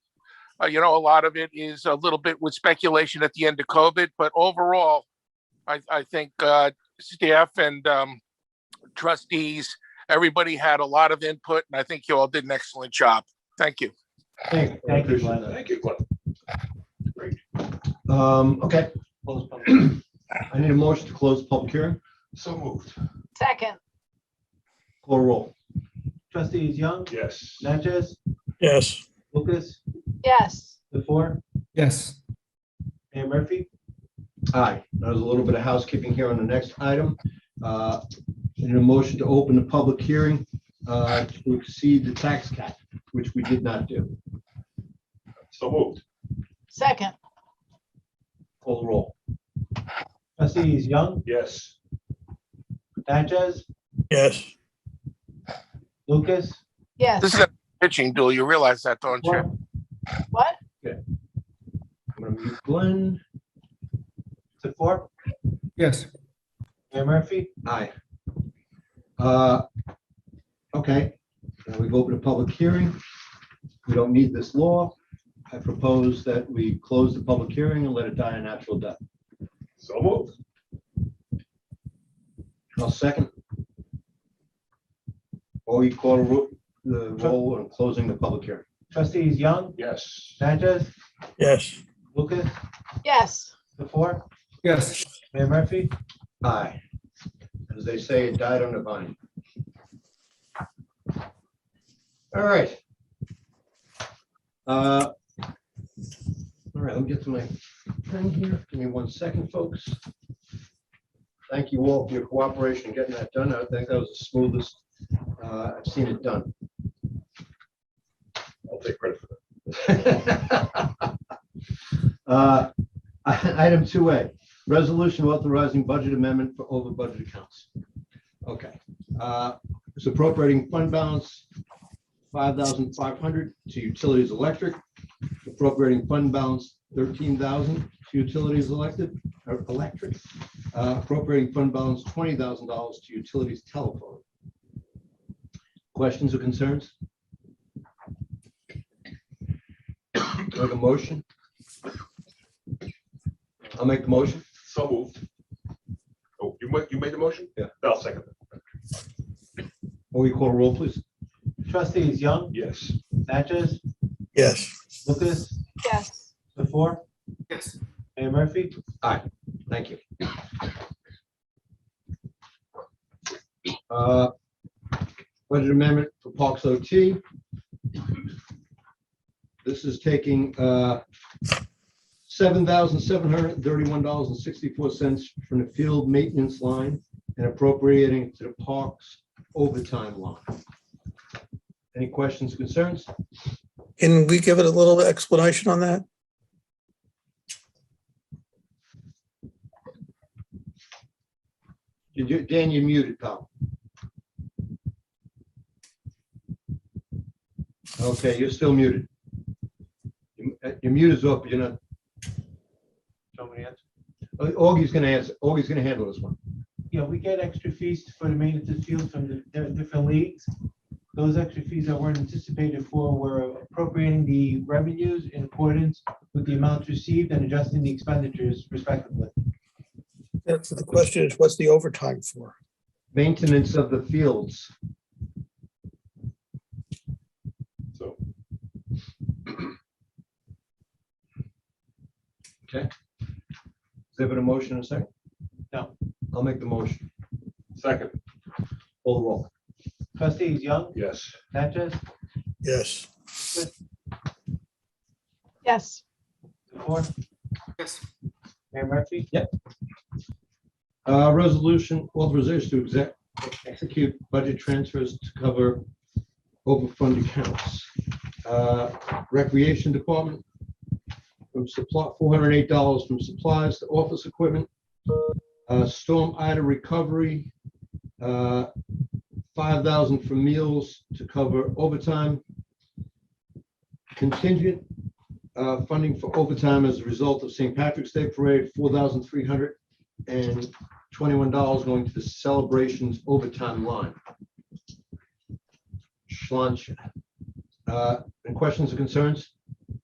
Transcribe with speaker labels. Speaker 1: Uh, you know, a lot of it is a little bit with speculation at the end of COVID, but overall, I, I think, uh, staff and, um, trustees, everybody had a lot of input and I think you all did an excellent job. Thank you.
Speaker 2: Thank thank you, Glenn.
Speaker 3: Thank you, Glenn.
Speaker 2: Um, okay. Close public hearing. I need a motion to close the public hearing.
Speaker 3: So moved.
Speaker 4: Second,
Speaker 2: Call roll.
Speaker 5: Trustees Young,
Speaker 3: Yes.
Speaker 5: Natchez,
Speaker 6: yes,
Speaker 5: Lucas,
Speaker 4: yes,
Speaker 5: the four,
Speaker 7: yes,
Speaker 5: Mayor Murphy,
Speaker 2: Aye. There's a little bit of housekeeping here on the next item. Uh, I Need a motion to open the public hearing uh, to exceed the tax cap, which we did not do.
Speaker 3: So moved.
Speaker 4: second,
Speaker 2: Call roll.
Speaker 5: trustees Young,
Speaker 3: Yes.
Speaker 5: Natchez,
Speaker 6: yes,
Speaker 5: Lucas,
Speaker 1: This
Speaker 4: yes,
Speaker 1: is a pitching duel. You realize that, don't you?
Speaker 5: Moore.
Speaker 4: what?
Speaker 2: I'm gonna mute Glenn.
Speaker 5: the four,
Speaker 7: yes.
Speaker 5: Mayor Murphy,
Speaker 2: Aye. Uh, Okay, now we've opened a public hearing. We don't need this law. I propose that we close the public hearing and let it die a natural death.
Speaker 3: So moved.
Speaker 2: I'll second. Or you call a ro- the roll on closing the public hearing.
Speaker 5: trustees Young,
Speaker 3: Yes.
Speaker 5: Natchez,
Speaker 6: yes,
Speaker 5: Lucas,
Speaker 4: Yes,
Speaker 5: the four,
Speaker 7: Yes,
Speaker 5: Mayor Murphy,
Speaker 2: Aye. As they say, it died on the vine. All right. Uh, All right, let me get to my thing here. Give me one second, folks. Thank you all for your cooperation in getting that done. I think that was the smoothest uh, I've seen it done.
Speaker 3: I'll take credit for
Speaker 2: Uh, Item two A, resolution authorizing budget amendment for over budget accounts. Okay, uh, it's appropriating fund balance five thousand five hundred to utilities electric, appropriating fund balance thirteen thousand to utilities elected, or electric, uh, appropriating fund balance twenty thousand dollars to utilities telephone. Questions or concerns? Do I have a motion? I'll make the motion.
Speaker 3: that. So moved. Oh, you made, you made the motion?
Speaker 2: Yeah.
Speaker 3: I'll second it.
Speaker 2: Will you call a roll, please?
Speaker 5: trustees Young,
Speaker 3: Yes.
Speaker 5: Natchez,
Speaker 6: yes,
Speaker 5: Lucas,
Speaker 4: yes,
Speaker 5: the four,
Speaker 7: yes.
Speaker 5: Mayor Murphy,
Speaker 2: Thank you. Uh, Budget amendment for Parks OT. This is taking uh, seven thousand seven hundred thirty-one dollars and sixty-four cents from the field maintenance line and appropriating it to the parks overtime line. Any questions, concerns?
Speaker 6: can we give it a little explanation on that?
Speaker 2: Did you- Dan, you muted, pal. Okay, you're still muted. You- uh, Your mute is up, you're not,
Speaker 5: somebody else.
Speaker 2: uh, Augie's gonna answer, Augie's gonna handle this one.
Speaker 5: Yeah, we get extra fees for the maintenance of field from the di- different leagues. Those extra fees that weren't anticipated for were appropriating the revenues in accordance with the amounts received and adjusting the expenditures respectively.
Speaker 6: That's the question is, what's the overtime for?
Speaker 2: Maintenance of the fields.
Speaker 3: So,
Speaker 2: Is there been a motion in a second?
Speaker 5: No.
Speaker 2: I'll make the motion.
Speaker 3: second.
Speaker 2: Full roll.
Speaker 5: Trustees Young,
Speaker 3: Yes.
Speaker 5: Natchez,
Speaker 6: Yes,
Speaker 4: yes,
Speaker 5: DeFour,
Speaker 7: Yes.
Speaker 5: Mayor Murphy,
Speaker 2: Uh, resolution authorization to exec, execute budget transfers to cover overfund accounts. Uh, Recreation Department, from supply, four hundred and eight dollars from supplies to office equipment. Uh, Storm Ida Recovery, uh, five thousand for meals to cover overtime. Contingent, uh, funding for overtime as a result of St. Patrick's Day Parade, four thousand three hundred and twenty-one dollars going to the celebrations overtime line. Schlanch. Uh, Any questions or concerns?